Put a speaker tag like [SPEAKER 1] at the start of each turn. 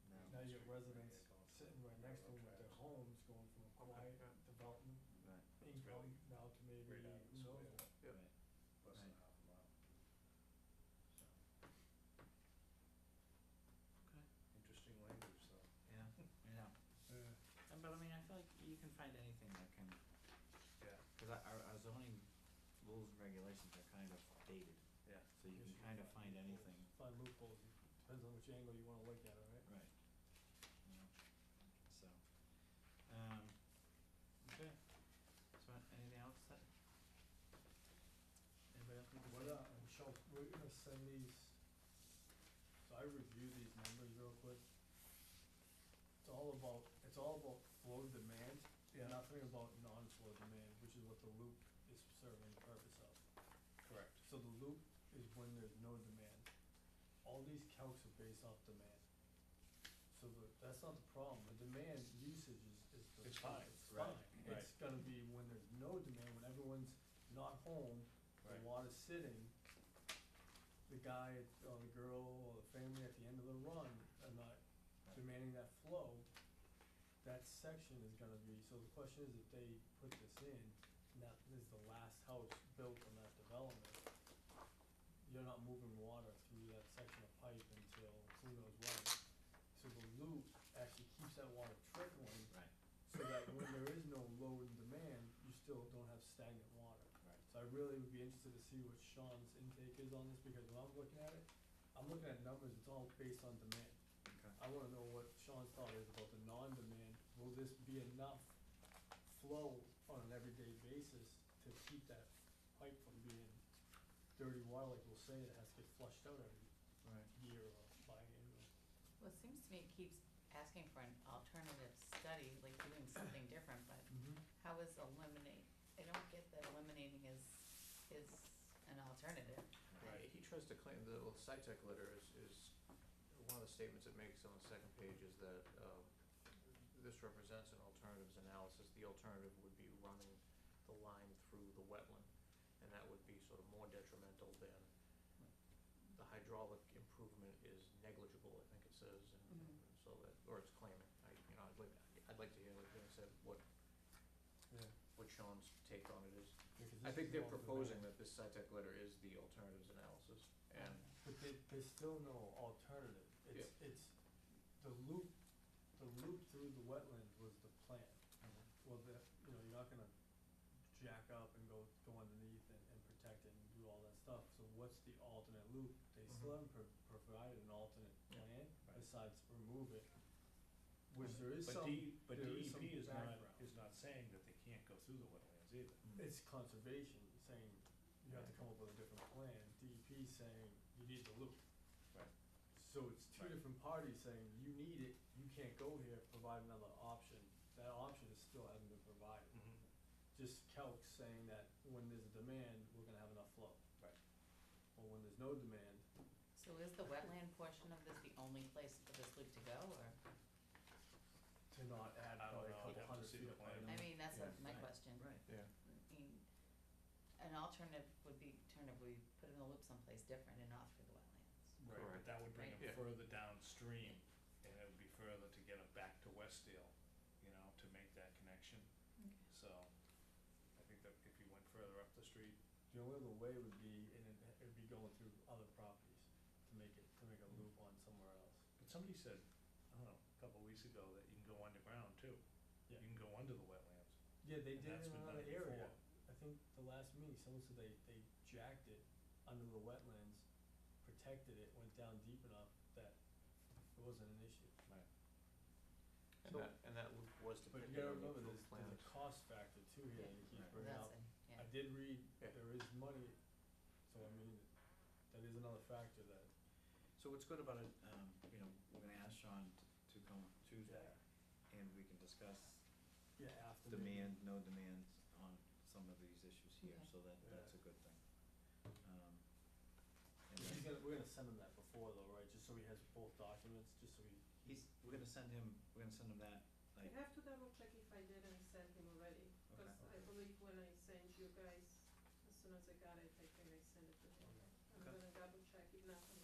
[SPEAKER 1] the residents sitting right next to them with their homes going from a quiet development,
[SPEAKER 2] Right.
[SPEAKER 1] income now to maybe,
[SPEAKER 3] Right out of the
[SPEAKER 1] who knows
[SPEAKER 3] square.
[SPEAKER 1] what.
[SPEAKER 2] Yep.
[SPEAKER 3] Right. Less than
[SPEAKER 2] Right.
[SPEAKER 3] half a mile. So,
[SPEAKER 4] Okay.
[SPEAKER 3] Interesting language, though.
[SPEAKER 4] Yeah, I know. Uh, But I mean, I feel like you can find anything that can,
[SPEAKER 2] Yeah,
[SPEAKER 4] because our, our zoning rules and regulations are kind of dated,
[SPEAKER 2] yeah.
[SPEAKER 4] so you can kind of find anything.
[SPEAKER 1] Find loopholes, depends on which angle you wanna look at it, right?
[SPEAKER 4] Right. You know, so, um, okay, so anything else that? Anybody else? need to
[SPEAKER 1] What,
[SPEAKER 4] say?
[SPEAKER 1] uh, and shall, we're gonna send these, so I reviewed these numbers real quick. It's all about, it's all about flow demand,
[SPEAKER 3] Yeah.
[SPEAKER 1] nothing about non-flow demand, which is what the loop is serving the purpose of.
[SPEAKER 3] Correct.
[SPEAKER 1] So the loop is when there's no demand. All these calcs are based off demand. So the, that's not the problem, the demand usage is, is the
[SPEAKER 3] It's
[SPEAKER 1] fine,
[SPEAKER 3] fine,
[SPEAKER 1] it's
[SPEAKER 4] right,
[SPEAKER 1] fine. It's gonna be when there's no demand, when everyone's not home, the
[SPEAKER 3] Right.
[SPEAKER 1] water's sitting, the guy at- or the girl or the family at the end of the run are not demanding that flow, that section is gonna be, so the question is if they put this in, and that is the last house built on that development, you're not moving water through that section of pipe until who knows when. So the loop actually keeps that water trickling,
[SPEAKER 4] Right,
[SPEAKER 1] so that when there is no load and demand, you still don't have stagnant water.
[SPEAKER 4] right,
[SPEAKER 1] So I really would be interested to see what Sean's intake is on this, because when I'm looking at it, I'm looking at numbers, it's all based on demand.
[SPEAKER 4] okay,
[SPEAKER 1] I wanna know what Sean's thought is about the non-demand, will this be enough flow on an everyday basis to keep that pipe from being dirty water, like we'll say, that has to get flushed out every
[SPEAKER 4] right.
[SPEAKER 1] year or biannual?
[SPEAKER 5] Well, it seems to me it keeps asking for an alternative study, like doing something different, but how is eliminate, I don't get that eliminating is, is an alternative.
[SPEAKER 2] Right, he tries to claim, the well, site tech letter is, is, one of the statements it makes on the second page is that, um, this represents an alternatives analysis, the alternative would be running the line through the wetland, and that would be sort of more detrimental than, the hydraulic improvement is negligible, I think it says, and, and so that, or it's claiming, I, you know, I'd like, I'd like to hear, like Dan said, what,
[SPEAKER 1] Yeah.
[SPEAKER 2] what Sean's take on it is. I think they're proposing that this SciTech letter is the alternatives analysis, and,
[SPEAKER 1] But there, there's still no alternative, it's, it's, the loop, the loop through the wetland was the plan. Well, the, you know, you're not gonna jack up and go, go underneath and, and protect it and do all that stuff, so what's the alternate loop? They still haven't pro- provided an alternate
[SPEAKER 2] Yeah,
[SPEAKER 1] plan
[SPEAKER 3] Mm-hmm. right.
[SPEAKER 1] besides remove it, which there is
[SPEAKER 3] But D,
[SPEAKER 1] some,
[SPEAKER 3] but
[SPEAKER 1] there is some
[SPEAKER 3] DEP is not,
[SPEAKER 1] background.
[SPEAKER 3] is not saying that they can't go through the wetlands either.
[SPEAKER 1] It's conservation saying you have to come up with a different plan, DEP saying you need the loop.
[SPEAKER 3] Right.
[SPEAKER 1] So it's two
[SPEAKER 3] Right.
[SPEAKER 1] different parties saying you need it, you can't go here, provide another option, that option is still hasn't been provided.
[SPEAKER 3] Mm-hmm.
[SPEAKER 1] just calcs saying that when there's a demand, we're gonna have enough flow.
[SPEAKER 3] Right.
[SPEAKER 1] Or when there's no demand,
[SPEAKER 5] So is the wetland portion of this the only place for this loop to go, or,
[SPEAKER 1] to not add
[SPEAKER 3] I don't know,
[SPEAKER 1] probably a
[SPEAKER 3] I'd have
[SPEAKER 1] couple
[SPEAKER 3] to
[SPEAKER 1] hundred
[SPEAKER 3] see
[SPEAKER 1] feet
[SPEAKER 3] the
[SPEAKER 1] of
[SPEAKER 3] plan.
[SPEAKER 1] pipe.
[SPEAKER 5] I mean, that's
[SPEAKER 3] Yeah.
[SPEAKER 5] my
[SPEAKER 4] Right,
[SPEAKER 5] question.
[SPEAKER 4] Right,
[SPEAKER 3] Yeah.
[SPEAKER 5] I mean, an alternative would be, alternative, we put in a loop someplace different and not through the wetlands.
[SPEAKER 3] Right,
[SPEAKER 2] Right.
[SPEAKER 3] but that would bring
[SPEAKER 5] Right.
[SPEAKER 2] Yeah.
[SPEAKER 3] them further downstream, and it would be further to get them back to Westdale, you know, to make that connection,
[SPEAKER 5] Okay.
[SPEAKER 3] so. I think that if you went further up the street,
[SPEAKER 1] The only other way would be, and it- it'd be going through other properties to make it, to make a loop on somewhere else.
[SPEAKER 3] but somebody said, I don't know, a couple of weeks ago, that you can go underground too. You
[SPEAKER 1] Yeah.
[SPEAKER 3] can go under the wetlands.
[SPEAKER 1] Yeah, they
[SPEAKER 3] And
[SPEAKER 1] did it
[SPEAKER 3] that's
[SPEAKER 1] in
[SPEAKER 3] been
[SPEAKER 1] another
[SPEAKER 3] done before.
[SPEAKER 1] area. I think the last meeting, someone said they, they jacked it under the wetlands, protected it, went down deep enough that it wasn't an issue.
[SPEAKER 2] and that, and that loop was
[SPEAKER 1] But
[SPEAKER 2] depicted
[SPEAKER 1] you gotta
[SPEAKER 2] in the
[SPEAKER 1] remember,
[SPEAKER 2] approved
[SPEAKER 1] there's, there's
[SPEAKER 2] plans.
[SPEAKER 1] a cost factor too here that you
[SPEAKER 4] Right.
[SPEAKER 1] keep bringing up.
[SPEAKER 5] That's it, yeah.
[SPEAKER 1] I did read,
[SPEAKER 2] Yeah.
[SPEAKER 1] there is money, so I mean, that is another factor that,
[SPEAKER 4] so what's good about it, um, you know, we're gonna ask Sean t- to come Tuesday, and we can discuss
[SPEAKER 1] yeah, after. the meeting.
[SPEAKER 4] demand, no demand on some of these issues here,
[SPEAKER 5] Okay.
[SPEAKER 4] so that, that's a good thing. Um, and
[SPEAKER 1] He's
[SPEAKER 4] then
[SPEAKER 1] gonna, we're gonna send him that before though, right, just so he has both documents, just so he,
[SPEAKER 4] he's, we're gonna send him, we're gonna send him that,
[SPEAKER 6] I
[SPEAKER 4] like,
[SPEAKER 6] have to double check if I didn't send him already, because I
[SPEAKER 1] Okay.
[SPEAKER 6] believe when I sent you guys, as soon as I got it, I think I sent it to him. I'm
[SPEAKER 4] Okay.
[SPEAKER 6] gonna double check it now, I'm